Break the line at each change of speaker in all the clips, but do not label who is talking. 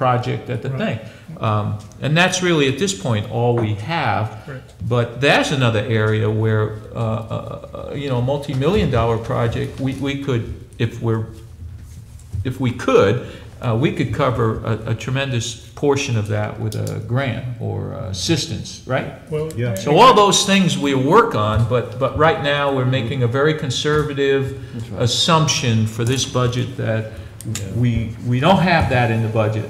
project at the
Right.
thing. Um, And that's really, at this point, all we have.
Correct.
But that's another area where, uh, uh, uh, you know, a multi-million dollar project, we, we could, if we're, if we could, uh, we could cover a a tremendous portion of that with a grant or assistance, right?
Well,
Yeah.
So all those things we work on, but, but right now, we're making a very conservative assumption for this budget that we, we don't have that in the budget.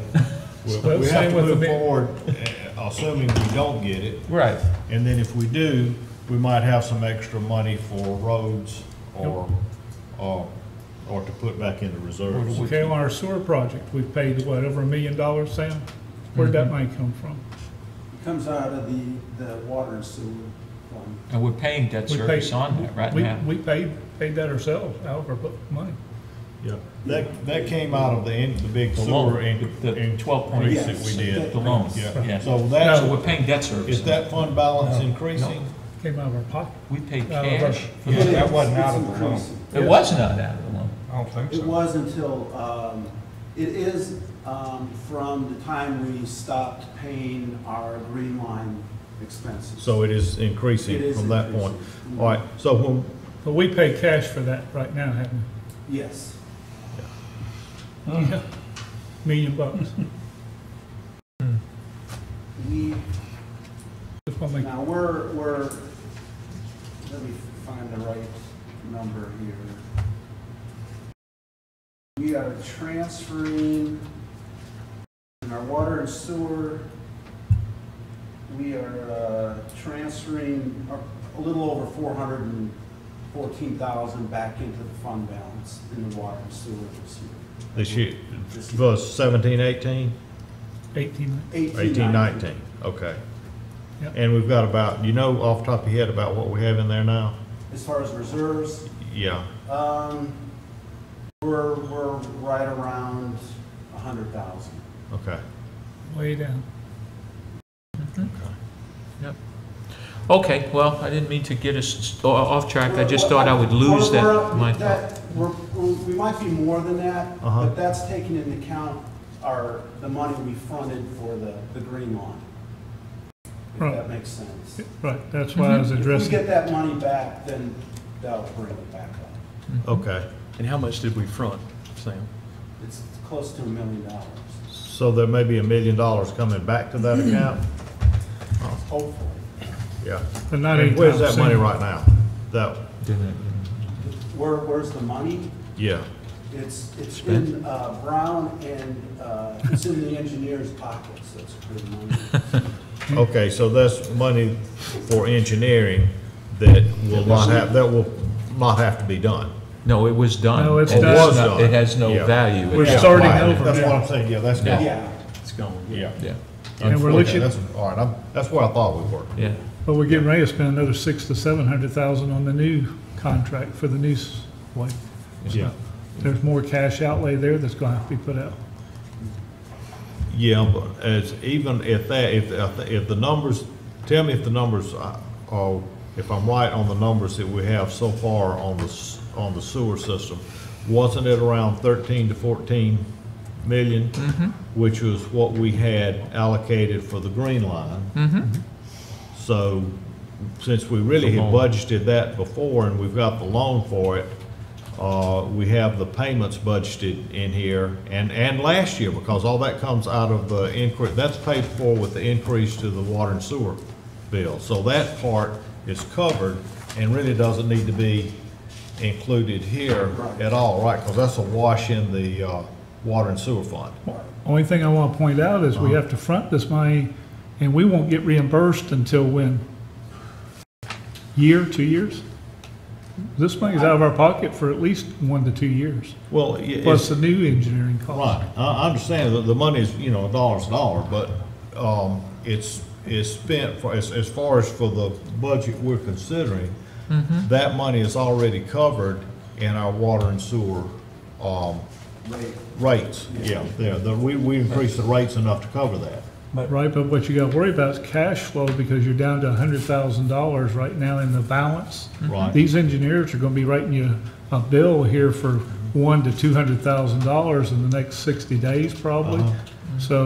Well,
Well, We
same
have to
with the
move
big-
forward, uh, assuming we don't get it,
Right.
and then if we do, we might have some extra money for roads or, or, or to put back into reserves.
Okay, on our sewer project, we've paid, what, over a million dollars, Sam? Where'd
Mm-hmm.
that money come from?
Comes out of the, the water and sewer fund.
And we're paying debt
We
service
paid-
on that right
we-
now.
We paid, paid that ourselves out of our bu- money.
Yeah, that, that came out of the, in- the big
The loan,
sewer in-
the- the
increase
12.8.
that we did.
The loans, yeah.
Yeah, so
So
that's,
we're paying debt service.
is that fund balance increasing?
Came out of our pocket.
We paid
Out of our-
cash.
But
Yeah, that
it's-
wasn't
it's
out of the loan.
increasing.
It was not out of the loan.
I don't think
It
so.
was until, um, it is, um, from the time we stopped paying our green line expenses.
So it is
It
increasing
is
from that point.
increasing.
All right, so when,
But we pay cash for that right now, haven't
Yes.
we? Yeah. Million bucks.
We,
Just wanna make-
now, we're, we're, let me find the right number here. We are transferring in our water and sewer, we are uh, transferring a- a little over four hundred and fourteen thousand back into the fund balance in the water and sewer this year.
this year, was seventeen, eighteen?
Eighteen,
Eighteen, nineteen, okay.
Yep.
And we've got about, you know off the top of your head about what we have in there now?
As far as reserves,
Yeah,
um, we're, we're right around a hundred thousand.
okay.
way down.
Okay, well, I didn't mean to get us o- off track. I just thought I would lose that.
We're- we're-
my-
that- we're- we're- We might be more than that,
Uh-huh.
but that's taking into account our, the money we funded for the, the green lawn. If
Right.
that makes sense.
Right, that's why I was
If we
addressing.
get that money back, then that'll bring it back up.
Okay,
And how much did we front, Sam?
It's close to a million dollars,
so there may be a million dollars coming back to that account?
hopefully.
Yeah.
But not
And Where's that money
anytime
right now? That,
Where, where's the money?
yeah,
It's, it's in uh, Brown and uh, it's in the engineer's pockets, that's pretty money.
okay, so that's money for engineering that will not have, that will not have to be done.
No, it was done.
No, it's
It is
done.
Was
not-
done.
It has no
Yeah.
value.
We're
Yeah,
starting
right.
over
That's
now.
what I'm saying, yeah, that's gone.
Yeah.
It's gone.
Yeah.
Yeah,
And we're looking-
Unfortunately, that's- All right, I'm, that's where I thought we were.
yeah.
soon. But we're getting ready to spend another six to seven hundred thousand on the new contract for the new s- way.
Yeah.
There's more cash outlay there that's gonna have to be put out.
Yeah, but as, even if that, if, if the numbers, tell me if the numbers, are- are if I'm right on the numbers that we have so far on the, s- on the sewer system, wasn't it around thirteen to fourteen million? Which was what we had allocated for the green line. So, since we really had budgeted that before and we've got the loan for it, uh, we have the payments budgeted in here and, and last year, because all that comes out of the increase, that's paid for with the increase to the water and sewer bill. So that part is covered and really doesn't need to be included here at all, right? Because that's a wash in the, uh, water and sewer fund.
Only thing I want to point out is
Uh-huh.
we have to front this money, and we won't get reimbursed until when? Year, two years? This money's out of our pocket for at least one to two years,
Well, yeah, it's-
plus the new engineering cost.
Right, I, I understand that the money is, you know, a dollar's a dollar, but, um, it's, it's spent for, as, as far as for the budget we're considering, that money is already covered in our water and sewer, um,
Right.
rates. Yeah, there, the, we, we increased the rates enough to cover that.
Right, but what you got to worry about is cash flow, because you're down to $100,000 right now in the balance.
Right.
These engineers are going to be writing you a bill here for one to $200,000 in the next 60 days, probably. So